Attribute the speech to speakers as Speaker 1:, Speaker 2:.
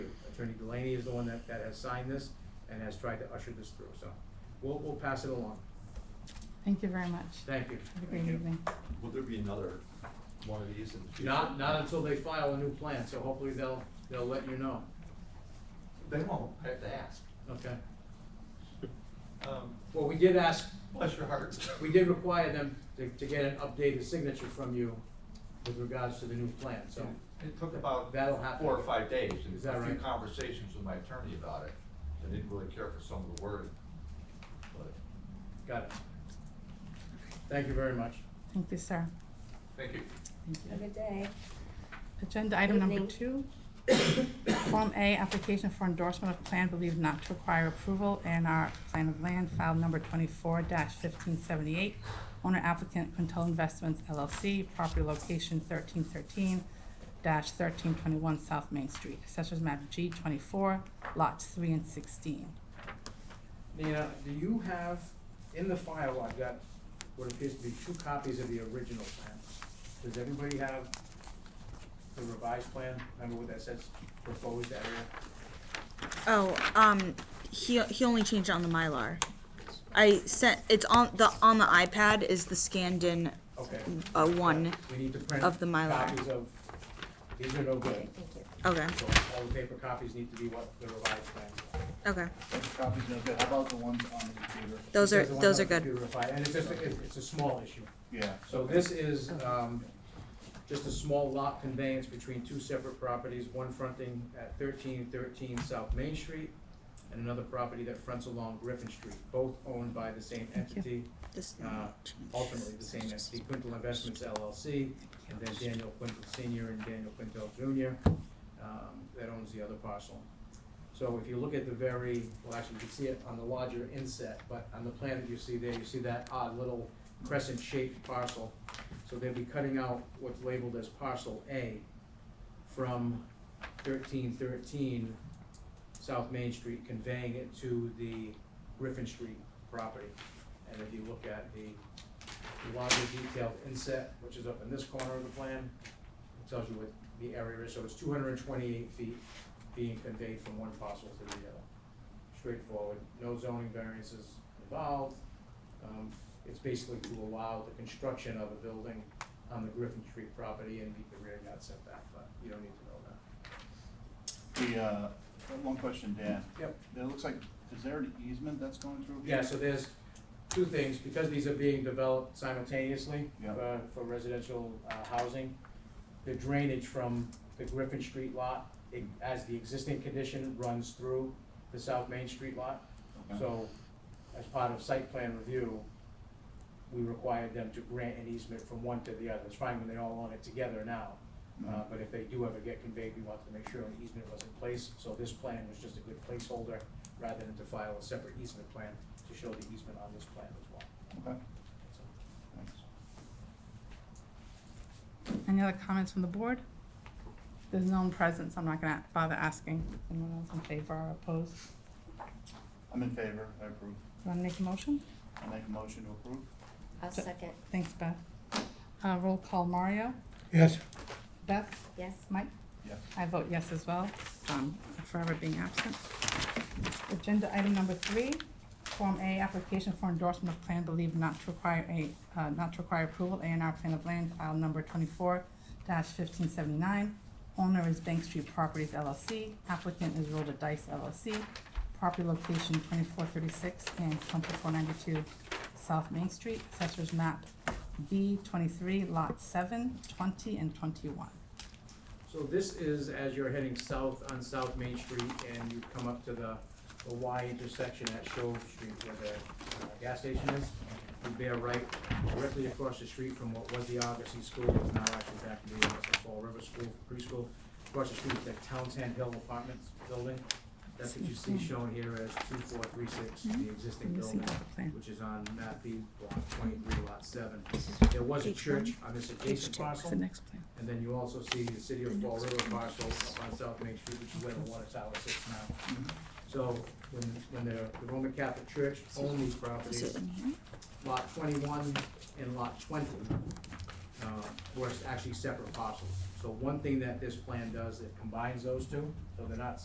Speaker 1: Attorney Delaney is the one that, that has signed this and has tried to usher this through, so we'll, we'll pass it along.
Speaker 2: Thank you very much.
Speaker 1: Thank you.
Speaker 2: Have a great
Speaker 3: you.
Speaker 2: evening.
Speaker 3: Will there be another one of these in the future?
Speaker 1: Not, not until they file a new plan, so hopefully they'll, they'll let you know,
Speaker 3: They won't, I have to ask.
Speaker 1: okay?
Speaker 3: Um,
Speaker 1: Well, we did ask,
Speaker 3: Bless your hearts.
Speaker 1: we did require them to, to get an updated signature from you with regards to the new plan, so.
Speaker 3: It took about
Speaker 1: That'll happen.
Speaker 3: four or five days,
Speaker 1: Is
Speaker 3: and
Speaker 1: that
Speaker 3: a few
Speaker 1: right?
Speaker 3: conversations with my attorney about it. I didn't really care for some of the wording, but
Speaker 1: Got it. Thank you very much.
Speaker 2: Thank you, sir.
Speaker 3: thank you.
Speaker 2: Thank
Speaker 4: Have a
Speaker 2: you.
Speaker 4: good day.
Speaker 2: Agenda item number
Speaker 4: Evening.
Speaker 2: two. Form A, application for endorsement of plan believed not to require approval and our plan of land file number twenty-four fifteen seventy-eight. Owner applicant Quintel Investments LLC, property location thirteen thirteen thirteen twenty-one South Main Street. Assessors map G twenty-four, lots three and sixteen.
Speaker 1: Nina, do you have, in the file, I've got what appears to be two copies of the original plan. Does everybody have the revised plan? Remember what that says, proposed area?
Speaker 5: Oh, um, he he only changed it on the Mylar. I sent it's on the on the iPad is the scanned in
Speaker 1: Okay.
Speaker 5: uh, one.
Speaker 1: We need to print
Speaker 5: Of the Mylar.
Speaker 1: copies of, these are no good.
Speaker 5: Okay,
Speaker 1: So all the paper copies need to be what the revised plan.
Speaker 5: okay,
Speaker 6: Copies no good. How about the ones on the computer?
Speaker 5: those are
Speaker 1: Because the ones
Speaker 5: those
Speaker 1: on
Speaker 5: are
Speaker 1: the
Speaker 5: good.
Speaker 1: computer file- And it's just, it's it's a small issue.
Speaker 6: Yeah.
Speaker 1: So this is, um, just a small lot conveyance between two separate properties, one fronting at thirteen thirteen South Main Street, and another property that fronts along Griffin Street, both owned by the same
Speaker 2: Thank you.
Speaker 1: entity,
Speaker 5: This
Speaker 1: uh, ultimately the same entity, Quintel Investments LLC, and then Daniel Quintel Senior and Daniel Quintel Junior, um, that owns the other parcel. So if you look at the very, well, actually, you can see it on the larger inset, but on the plan that you see there, you see that odd little crescent-shaped parcel. So they'll be cutting out what's labeled as parcel A from thirteen thirteen South Main Street, conveying it to the Griffin Street property. And if you look at the larger detailed inset, which is up in this corner of the plan, it tells you what the area is, so it's two hundred and twenty-eight feet being conveyed from one parcel to the other. Straightforward, no zoning variances involved. Um, it's basically to allow the construction of a building on the Griffin Street property and meet the rear yard setback, but you don't need to know that.
Speaker 6: The, uh, one question, Dan.
Speaker 1: Yep.
Speaker 6: It looks like, is there an easement that's going through? here?
Speaker 1: Yeah, so there's two things, because these are being developed simultaneously
Speaker 6: Yeah.
Speaker 1: uh, for residential uh, housing, the drainage from the Griffin Street lot, it- as the existing condition runs through the South Main Street lot.
Speaker 6: Okay.
Speaker 1: So as part of site plan review, we required them to grant an easement from one to the other. It's fine when they all own it together now. Uh,
Speaker 6: Mhm.
Speaker 1: but if they do ever get conveyed, we wanted to make sure an easement was in place, so this plan was just a good placeholder rather than to file a separate easement plan to show the easement on this plan as well.
Speaker 6: Okay,
Speaker 1: So,
Speaker 6: thanks.
Speaker 2: Any other comments from the board? There's no one present, so I'm not gonna bother asking. Anyone else in favor or opposed?
Speaker 6: I'm in favor, I approve.
Speaker 2: Want to make a motion?
Speaker 6: I make a motion to approve.
Speaker 4: I'll second,
Speaker 2: Thanks, Beth. Uh, roll call, Mario?
Speaker 7: Yes,
Speaker 2: Beth?
Speaker 4: yes.
Speaker 2: Mike?
Speaker 6: Yes.
Speaker 2: I vote yes as well, um, forever being absent. Agenda item number three, Form A, application for endorsement of plan believed not to require a, uh, not to require approval, A and R plan of land, file number twenty-four fifteen seventy-nine. Owner is Bank Street Properties LLC, applicant is Rhoda Dice LLC, property location twenty-four thirty-six and twenty-four ninety-two South Main Street, assessors map B twenty-three, lot seven, twenty, and twenty-one.
Speaker 1: So this is as you're heading south on South Main Street and you come up to the, the Y intersection at Shoal Street where the uh, gas station is. You bear right directly across the street from what was the Augustine School, it's now actually back to the Augusta Fall River School preschool. Across the street is that Townsend Hill Apartments building. That's what you see shown here as two four three six, the existing
Speaker 2: Mm-hmm. Let me see
Speaker 1: building,
Speaker 2: the plan.
Speaker 1: which is on map B, block twenty-three, lot seven.
Speaker 5: This is
Speaker 1: There was a
Speaker 5: page
Speaker 1: church
Speaker 5: one,
Speaker 1: on this
Speaker 5: page
Speaker 1: adjacent
Speaker 5: two.
Speaker 1: parcel.
Speaker 2: The next plan.
Speaker 1: And then you also see the city of
Speaker 5: The
Speaker 1: Fall
Speaker 5: next
Speaker 1: River parcel up on South Main Street, which is where the water tower sits now.
Speaker 5: Mm-hmm.
Speaker 1: So when, when the, the Roman Catholic Church owned these
Speaker 5: Is
Speaker 1: properties,
Speaker 5: it in here?
Speaker 1: lot twenty-one and lot twenty, uh, were actually separate parcels. So one thing that this plan does, it combines those two, so they're not